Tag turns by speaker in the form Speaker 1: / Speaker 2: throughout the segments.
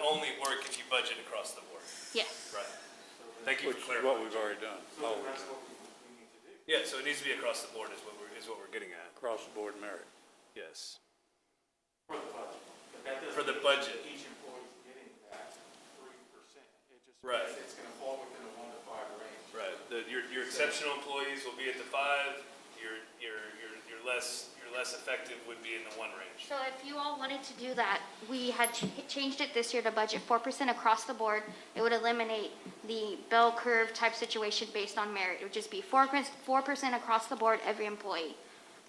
Speaker 1: only work if you budget across the board.
Speaker 2: Yeah.
Speaker 1: Right. Thank you
Speaker 3: Which
Speaker 1: for
Speaker 3: is
Speaker 1: clarifying.
Speaker 3: what we've already done, all we've done,
Speaker 1: Yeah, so it needs to be across the board is what we're, is what we're getting at.
Speaker 3: across the board merit.
Speaker 1: Yes. For the budget.
Speaker 4: Each employee's getting that three percent. It just.
Speaker 1: Right.
Speaker 4: It's gonna fall within a one to five range.
Speaker 1: Right. The, your, your exceptional employees will be at the five, your, your, your, your less, your less effective would be in the one range.
Speaker 2: So if you all wanted to do that, we had ch- changed it this year to budget 4% across the board. It would eliminate the bell curve type situation based on merit. It would just be 4%, 4% across the board, every employee.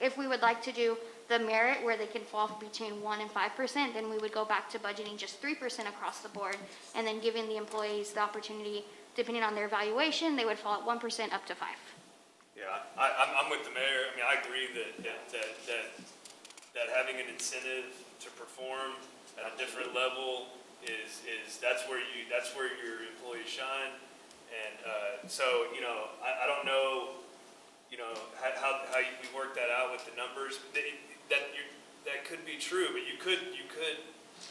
Speaker 2: If we would like to do the merit where they can fall between 1 and 5%, then we would go back to budgeting just 3% across the board and then giving the employees the opportunity, depending on their evaluation, they would fall at 1% up to 5.
Speaker 1: Yeah, I, I'm, I'm with the mayor. I mean, I agree that, that, that, that, that having an incentive to perform at a different level is, is, that's where you, that's where your employees shine. And, uh, so, you know, I, I don't know, you know, how, how, how you- we work that out with the numbers. That, that you, that could be true, but you could, you could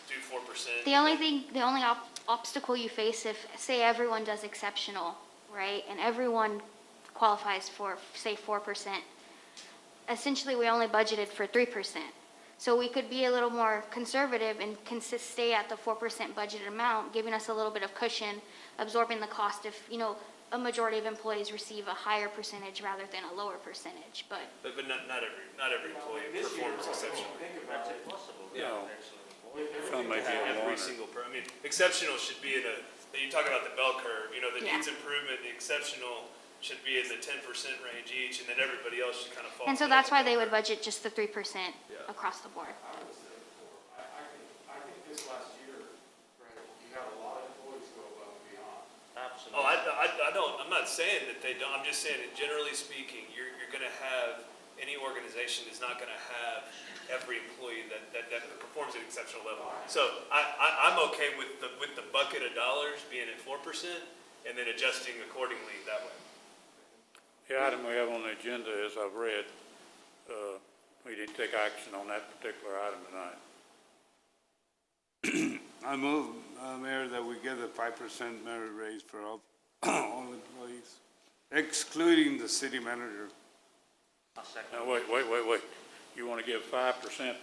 Speaker 1: do four percent.
Speaker 2: The only thing, the only ob- obstacle you face if, say, everyone does exceptional, right, and everyone qualifies for, say, four percent, essentially, we only budgeted for three percent. So we could be a little more conservative and consist, stay at the four percent budgeted amount, giving us a little bit of cushion, absorbing the cost if, you know, a majority of employees receive a higher percentage rather than a lower percentage, but
Speaker 1: But, but not, not every, not every employee performs exceptionally.
Speaker 3: No, some may be at one
Speaker 1: Every
Speaker 3: or,
Speaker 1: single, per- I mean, exceptional should be in a, that you talk about the bell curve, you know, that
Speaker 2: Yeah.
Speaker 1: needs improvement, the exceptional should be in the ten percent range each, and then everybody else should kind of fall.
Speaker 2: And so
Speaker 1: below
Speaker 2: that's why
Speaker 1: that
Speaker 2: they would
Speaker 1: bell
Speaker 2: budget just the three percent
Speaker 1: Yeah.
Speaker 2: across the board.
Speaker 4: I would say four. I, I think, I think this last year, Brad, you had a lot of employees go above and beyond.
Speaker 1: curve. Oh, I, I, I don't, I'm not saying that they don't, I'm just saying that generally speaking, you're, you're gonna have, any organization is not gonna have every employee that, that, that performs at an exceptional level. So I, I, I'm okay with the, with the bucket of dollars being at four percent, and then adjusting accordingly that way.
Speaker 3: the item we have on the agenda, as I've read, uh, we didn't take action on that particular item tonight.
Speaker 5: I move, uh, Mayor, that we get a five percent merit raise for all, all employees, excluding the city manager.
Speaker 3: Now, wait, wait, wait, wait. You want to give five percent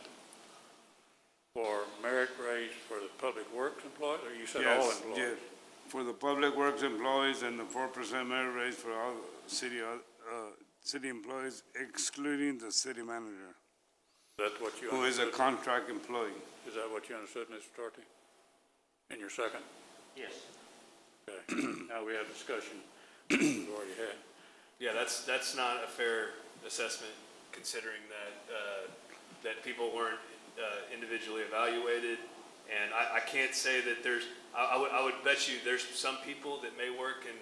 Speaker 3: for merit raise for the public works employees, or you said all
Speaker 5: Yes,
Speaker 3: employees?
Speaker 5: yes. For the public works employees and the four percent merit raise for all city, uh, city employees, excluding the city manager,
Speaker 3: That's what you
Speaker 5: who is a
Speaker 3: understood?
Speaker 5: contract employee.
Speaker 3: Is that what you understood, Mr. Torte? In your second?
Speaker 6: Yes.
Speaker 3: Okay. Now, we have discussion we've already had.
Speaker 1: Yeah, that's, that's not a fair assessment, considering that, uh, that people weren't uh, individually evaluated. And I, I can't say that there's, I, I would, I would bet you there's some people that may work in,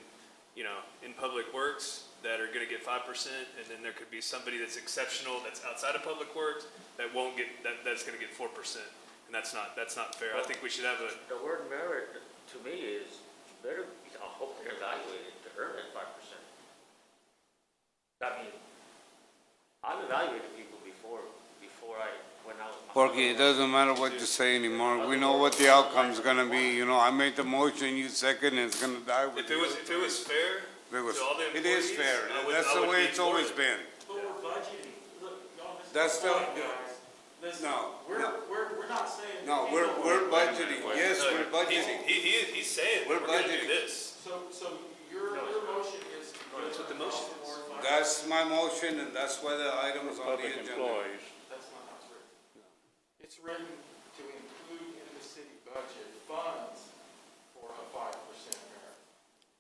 Speaker 1: you know, in public works that are gonna get five percent, and then there could be somebody that's exceptional, that's outside of public works, that won't get, that, that's gonna get four percent. And that's not, that's not fair. I think we should have a,
Speaker 6: The word merit, to me, is better, I hope they're evaluated to earn that five percent. I mean, I've evaluated people before, before I, when I was.
Speaker 5: Porque it doesn't matter what you say anymore, we know what the outcome's gonna be, you know, I made the motion, you second, and it's gonna die with
Speaker 1: if it
Speaker 5: you.
Speaker 1: was, if it was fair
Speaker 5: It was-
Speaker 1: to all the
Speaker 5: it is
Speaker 1: employees,
Speaker 5: fair,
Speaker 1: I would-
Speaker 5: that's
Speaker 1: I
Speaker 5: the
Speaker 1: would
Speaker 5: way
Speaker 1: be
Speaker 5: it's always
Speaker 1: for it.
Speaker 5: been.
Speaker 4: But we're budgeting, look, y'all missed.
Speaker 5: That's
Speaker 4: the
Speaker 5: still-
Speaker 4: point, guys. Listen,
Speaker 5: No,
Speaker 4: we're,
Speaker 5: no.
Speaker 4: we're, we're not saying.
Speaker 5: No,
Speaker 4: we
Speaker 5: we're,
Speaker 4: can't go
Speaker 5: we're
Speaker 4: away.
Speaker 5: budgeting, yes,
Speaker 1: No,
Speaker 5: we're
Speaker 1: he's-
Speaker 5: budgeting.
Speaker 1: He, he, is- he's saying, we're
Speaker 5: We're
Speaker 1: gonna do
Speaker 5: budgeting.
Speaker 1: this.
Speaker 4: So, so your, your motion is. That's what the motion is.
Speaker 5: That's my motion, and that's why the item is on the
Speaker 3: Public
Speaker 5: agenda.
Speaker 3: employees,
Speaker 4: That's not how it's written. It's written to include in the city budget funds for a five percent merit.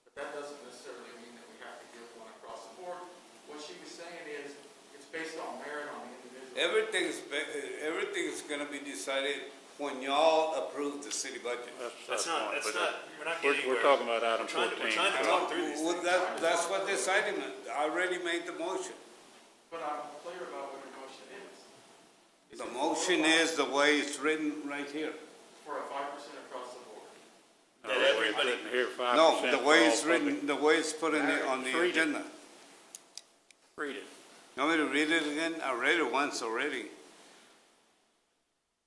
Speaker 4: But that doesn't necessarily mean that we have to give one across the board. What she was saying is, it's based on merit on the individual.
Speaker 5: Everything's, be- everything's gonna be decided when y'all approve the city budget.
Speaker 3: that's.
Speaker 1: That's
Speaker 3: my
Speaker 1: not,
Speaker 3: point,
Speaker 1: that's
Speaker 3: but
Speaker 1: not, we're not
Speaker 3: We're,
Speaker 1: getting anywhere.
Speaker 3: we're talking about item
Speaker 1: We're trying to-
Speaker 3: fourteen.
Speaker 1: We're trying to
Speaker 5: I
Speaker 1: talk
Speaker 5: know,
Speaker 1: through these
Speaker 5: well,
Speaker 1: things.
Speaker 5: that, that's what this item, is. I already made the motion.
Speaker 4: But I'm clear about what your motion is.
Speaker 5: The motion is the way it's written right here.
Speaker 4: For a five percent across the board.
Speaker 3: No, the way it's
Speaker 1: everybody-
Speaker 3: written here,
Speaker 5: No,
Speaker 3: 5%
Speaker 5: the
Speaker 3: for
Speaker 5: way
Speaker 3: all
Speaker 5: it's written, the way it's put in the, on the
Speaker 3: Read it.
Speaker 5: agenda.
Speaker 3: public- Read it.
Speaker 5: You want me to read it again? I read it once already.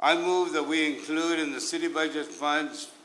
Speaker 5: I move that we include in the city budget funds